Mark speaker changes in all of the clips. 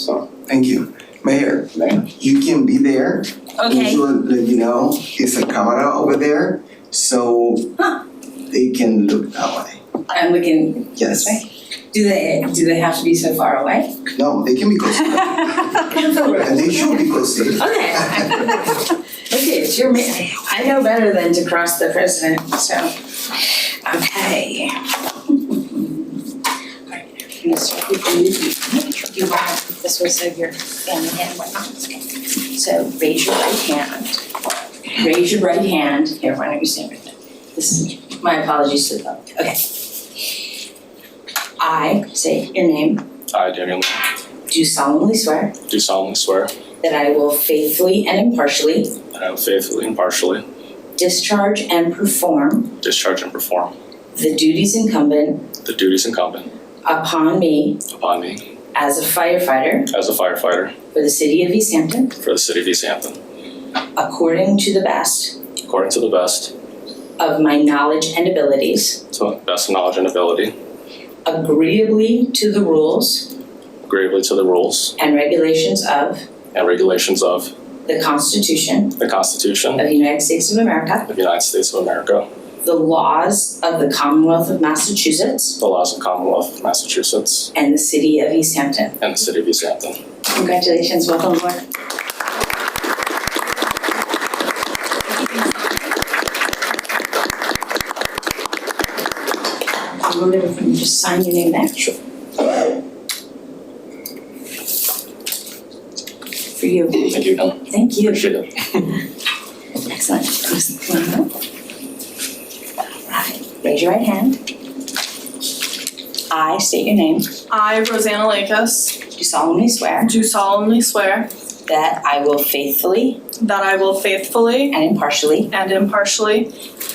Speaker 1: So,
Speaker 2: Thank you. Mayor,
Speaker 1: man,
Speaker 2: you can be there.
Speaker 3: Okay,
Speaker 2: Usually, you know, it's a camera over there, so
Speaker 3: Huh.
Speaker 2: they can look that way.
Speaker 3: and we can,
Speaker 2: Yes.
Speaker 3: Right. do they, do they have to be so far away?
Speaker 2: No, they can be close. And they should be close.
Speaker 3: Okay. Okay, it's your, ma- I know better than to cross the president, so, okay. Alright, I'm gonna start with the new- You want, this was of your family and whatnot, okay. So raise your right hand. Raise your right hand, here, why don't you stand right there? This is, my apologies to the public, okay. I say your name,
Speaker 4: I, Daniel Lee,
Speaker 3: do solemnly swear
Speaker 4: do solemnly swear
Speaker 3: that I will faithfully and impartially
Speaker 4: that I will faithfully and impartially
Speaker 3: discharge and perform
Speaker 4: discharge and perform
Speaker 3: The duties incumbent
Speaker 4: the duties incumbent
Speaker 3: upon me
Speaker 4: upon me
Speaker 3: as a firefighter
Speaker 4: as a firefighter
Speaker 3: for the city of East Hampton,
Speaker 4: for the city of East Hampton,
Speaker 3: according to the best
Speaker 4: according to the best,
Speaker 3: of my knowledge and abilities,
Speaker 4: to the best of knowledge and ability,
Speaker 3: agreeably to the rules
Speaker 4: agreeably to the rules
Speaker 3: and regulations of
Speaker 4: and regulations of
Speaker 3: the Constitution
Speaker 4: the Constitution
Speaker 3: of the United States of America,
Speaker 4: of the United States of America,
Speaker 3: the laws of the Commonwealth of Massachusetts,
Speaker 4: the laws of Commonwealth of Massachusetts,
Speaker 3: and the city of East Hampton.
Speaker 4: and the city of East Hampton.
Speaker 3: Congratulations, welcome aboard. I wonder if we can just sign your name there? Sure. For you,
Speaker 4: Thank you, Dylan.
Speaker 3: thank you.
Speaker 4: Appreciate it.
Speaker 3: Excellent. Just one more. Right, raise your right hand. I state your name,
Speaker 5: I, Rosanna Lakis,
Speaker 3: do solemnly swear
Speaker 5: do solemnly swear
Speaker 3: that I will faithfully
Speaker 5: that I will faithfully
Speaker 3: and impartially
Speaker 5: and impartially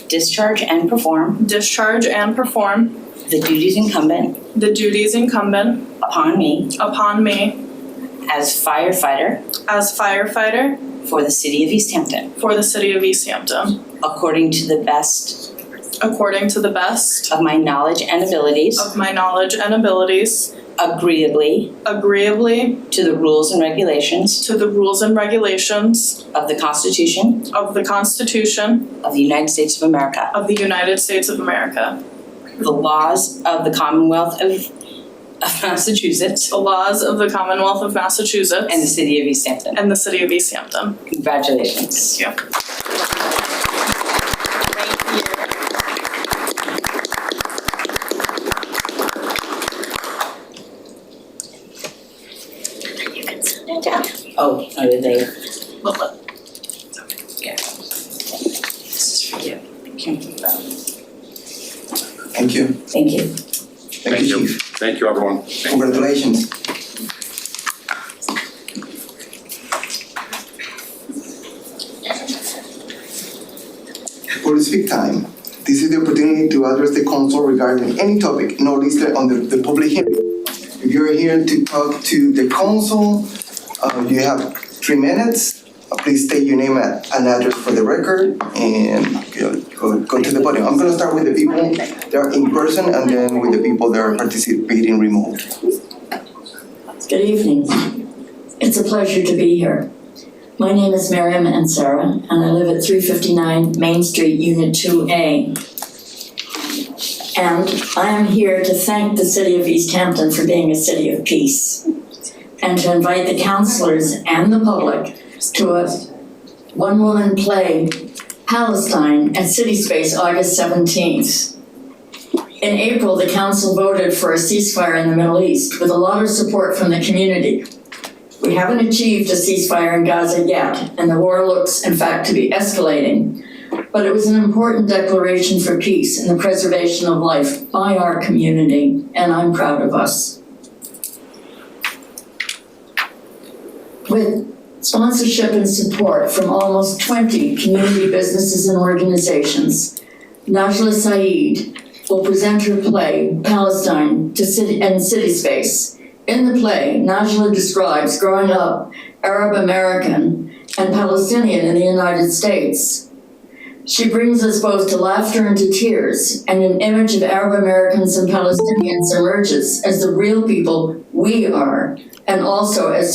Speaker 3: Discharge and perform
Speaker 5: discharge and perform
Speaker 3: the duties incumbent
Speaker 5: the duties incumbent
Speaker 3: upon me
Speaker 5: upon me
Speaker 3: as firefighter
Speaker 5: as firefighter
Speaker 3: for the city of East Hampton,
Speaker 5: for the city of East Hampton,
Speaker 3: according to the best
Speaker 5: according to the best
Speaker 3: of my knowledge and abilities,
Speaker 5: of my knowledge and abilities,
Speaker 3: agreeably
Speaker 5: agreeably
Speaker 3: to the rules and regulations
Speaker 5: to the rules and regulations
Speaker 3: of the Constitution
Speaker 5: of the Constitution
Speaker 3: of the United States of America,
Speaker 5: of the United States of America,
Speaker 3: the laws of the Commonwealth of, of Massachusetts,
Speaker 5: the laws of the Commonwealth of Massachusetts,
Speaker 3: and the city of East Hampton.
Speaker 5: and the city of East Hampton.
Speaker 3: Congratulations.
Speaker 5: Thank you.
Speaker 3: Oh, no, did they?
Speaker 5: Love it.
Speaker 3: This is for you. Can't keep that.
Speaker 2: Thank you.
Speaker 3: Thank you.
Speaker 2: Thank you, Chief.
Speaker 4: Thank you, everyone.
Speaker 2: Congratulations. For the speak time, this is the opportunity to address the council regarding any topic not listed on the, the public hearing. If you're here to talk to the council, uh, you have three minutes. Uh, Please state your name and and address for the record and go, go- go to the podium. I'm gonna start with the people that are in person and then with the people that are participating remote.
Speaker 6: Good evening. It's a pleasure to be here. My name is Miriam Ansara, and I live at 359 Main Street, Unit 2A. And I am here to thank the City of East Hampton for being a city of peace and to invite the councilors and the public to a one-woman play, Palestine, at City Space, August 17th. In April, the council voted for a ceasefire in the Middle East with a lot of support from the community. We haven't achieved a ceasefire in Gaza yet, and the war looks, in fact, to be escalating. But it was an important declaration for peace and the preservation of life by our community, and I'm proud of us. With sponsorship and support from almost 20 community businesses and organizations, Najla Saeed, will present her play, Palestine, to city and city space. In the play, Najla describes growing up Arab American and Palestinian in the United States. She brings us both to laughter and to tears, and an image of Arab Americans and Palestinians emerges as the real people we are, and also as